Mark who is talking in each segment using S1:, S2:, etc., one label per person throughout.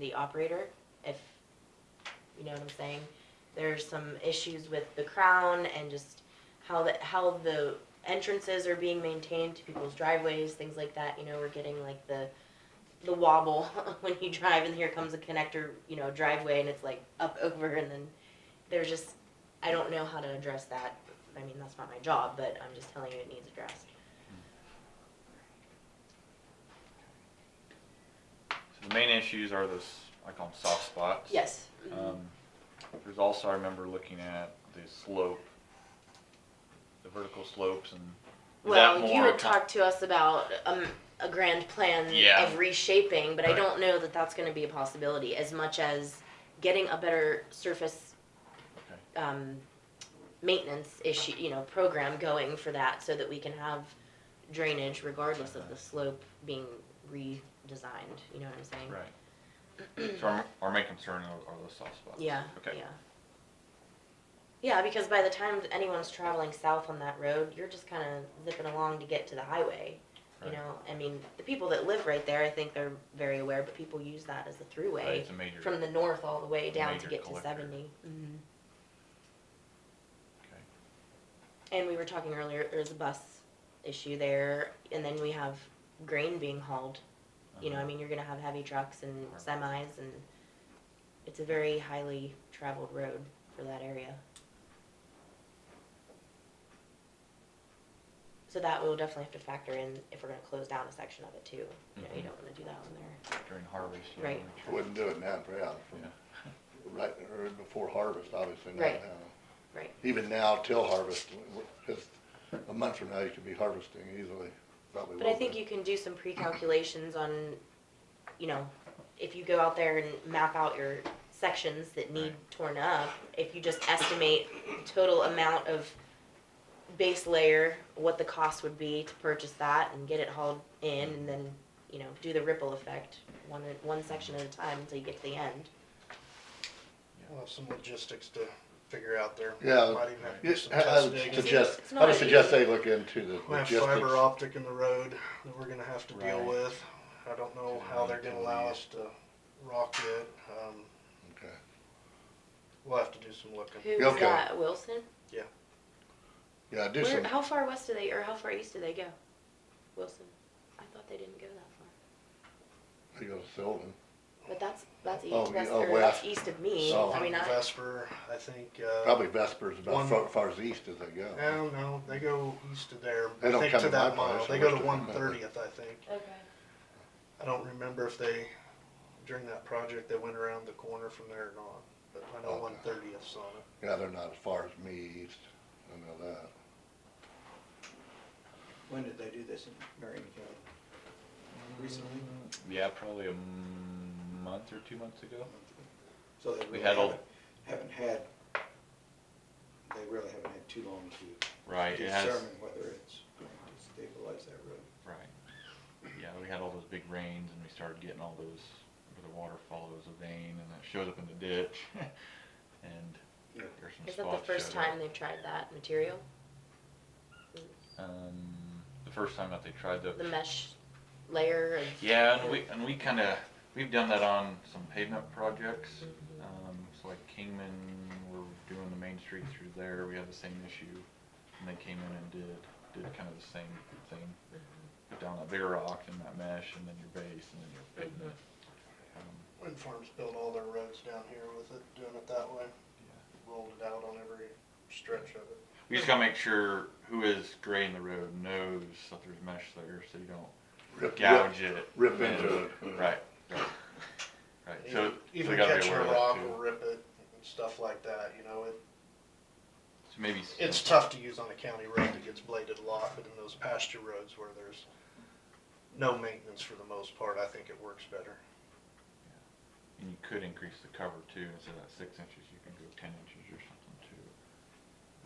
S1: the operator, if, you know what I'm saying? There's some issues with the crown and just how the, how the entrances are being maintained to people's driveways, things like that, you know, we're getting like the, the wobble when you drive and here comes a connector, you know, driveway and it's like up over and then there's just, I don't know how to address that. I mean, that's not my job, but I'm just telling you it needs addressed.
S2: So the main issues are those, I call them soft spots.
S1: Yes.
S2: Um, there's also, I remember looking at the slope, the vertical slopes and. is that
S1: Well, you
S2: more
S1: had
S2: com-
S1: talked to us about um, a grand plan
S2: Yeah.
S1: of reshaping, but I
S2: Right.
S1: don't know that that's going to be a possibility as much as getting a better surface
S2: Okay.
S1: um, maintenance issue, you know, program going for that so that we can have drainage regardless of the slope being redesigned. You know what I'm saying?
S2: Right. So our, our main concern are are those soft spots.
S1: Yeah.
S2: Okay.
S1: Yeah. Yeah, because by the time anyone's traveling south on that road, you're just kind of zipping along to get to the highway. You
S2: Right.
S1: know, I mean, the people that live right there, I think they're very aware, but people use that as a
S2: Right,
S1: throughway
S2: It's a major,
S1: from the north all the way down to
S2: Major
S1: get to
S2: collector.
S1: 70. Mhm.
S2: okay.
S1: And we were talking earlier, there's a bus issue there, and then we have grain being hauled. You know, I
S2: Uh-huh.
S1: mean, you're going to have heavy trucks and
S2: Right.
S1: semis, and it's a very highly traveled road for that area. So that we'll definitely have to factor in if we're going to close down a section of it too. You know, you
S2: Mhm.
S1: don't want to do that one there.
S2: During harvest. you
S1: Right.
S2: wanna make
S3: I
S2: sure-
S3: Wouldn't do it now, yeah, from
S2: Yeah.
S3: right, or before harvest, obviously, not
S1: Right.
S3: now.
S1: Right.
S3: Even now till harvest, just a month from now, you could be harvesting easily, probably.
S1: But I
S3: won't
S1: think
S3: be.
S1: you can do some pre-calculations on, you know, if you go out there and map out your sections that need torn up, if you just estimate total amount of base layer, what the cost would be to purchase that and get it hauled in and then, you know, do the ripple effect, one, one section at a time until you get to the end.
S4: We'll have some logistics to figure out there.
S3: Yeah.
S4: Might even have to do
S3: Yes,
S4: some
S3: I I
S4: test
S3: would
S4: digging.
S3: suggest,
S1: It's
S3: I
S1: not
S3: would suggest
S1: easy.
S3: they look into the
S4: We have fiber
S3: logistics.
S4: optic in the road that we're gonna have to deal
S2: Right.
S4: with. I don't know how they're gonna allow us to rock it. Um,
S3: Okay.
S4: we'll have to do some looking.
S1: Who's
S3: Okay.
S1: that, Wilson?
S3: Yeah, do
S1: Where,
S3: some,
S1: how far west do they, or how far east do they go? Wilson? I thought they didn't go that far.
S3: I go to Sylvan.
S1: But that's, that's east,
S3: Oh, you-
S1: that's,
S3: oh,
S1: or that's
S3: west.
S1: east of me,
S3: So-
S1: I mean, I,
S4: Vesper, I think, uh.
S3: Probably Vesper's about
S4: One- Um,
S3: far, far as east as they go.
S4: No, no, they go east of there.
S3: They
S4: I
S3: don't
S4: think
S3: come
S4: to
S3: to my
S4: that mile.
S3: place,
S4: They
S3: I
S4: go
S3: wish
S4: to
S3: they
S4: one
S3: did.
S4: thirtieth, I think.
S1: okay,
S4: I don't remember if they, during that project, they went around the corner from there or not. But I know
S3: Okay.
S4: one thirtieth's on it.
S3: Yeah, they're not as far as me east, I know that.
S5: When did they do this in Marion County? Recently?
S2: Yeah, probably a m- month or two months ago.
S5: So they
S2: We
S5: really
S2: had all-
S5: haven't, haven't had, they really haven't had too long to
S2: Right, it has,
S5: determine whether it's going to stabilize that road.
S2: right. Yeah, we had all those big rains and we started getting all those, where the water follows a vein and it shows up in the ditch. And
S5: Yeah.
S2: there's some
S1: is that the
S2: spots
S1: first
S2: showed up.
S1: time they've tried that material,
S2: Um, the first time that they tried
S1: the
S2: the,
S1: mesh layer of?
S2: yeah, and we, and we kinda, we've done that on some pavement projects.
S1: Mm-hmm.
S2: Um, so like Kingman, we're doing the main street through there, we had the same issue. And they came in and did, did kind of the same thing. Put down that bigger rock and that mesh and then your base and then your
S1: Mm-hmm.
S2: pavement. Um,
S4: Wind farms built all their roads down here with it, doing it that way. Rolled it out on every stretch of it.
S2: We just gotta make sure who is grading the road knows that there's mesh there, so you don't
S3: Rip-
S2: gouge it.
S3: Rip into it.
S2: Right, right, right, so. so we
S4: Even
S2: gotta be
S4: catching
S2: aware
S4: a
S2: of that
S4: rock
S2: too.
S4: will rip it and stuff like that, you know, it,
S2: So maybe.
S4: it's tough to use on a county road that gets bladed a lot, but in those pasture roads where there's no maintenance for the most part, I think it works better.
S2: And you could increase the cover too, instead of that six inches, you can go ten inches or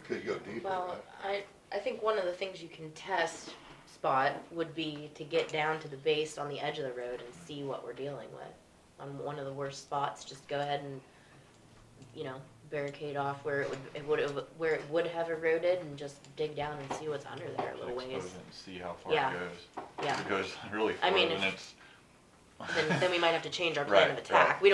S2: something too.
S3: Could go deeper,
S1: Well,
S3: right?
S1: I, I think one of the things you can test spot would be to get down to the base on the edge of the road and see what we're dealing with. On one of the worst spots, just go ahead and, you know, barricade off where it would, it would, where it would have eroded and just dig down and see what's under there a
S2: So
S1: little
S2: expose
S1: ways,
S2: it and See how far
S1: Yeah.
S2: it goes.
S1: yeah.
S2: If it goes really
S1: I
S2: far,
S1: mean,
S2: then
S1: if-
S2: it's,
S1: then, then we might have to change our plan of
S2: Right, right.
S1: attack. We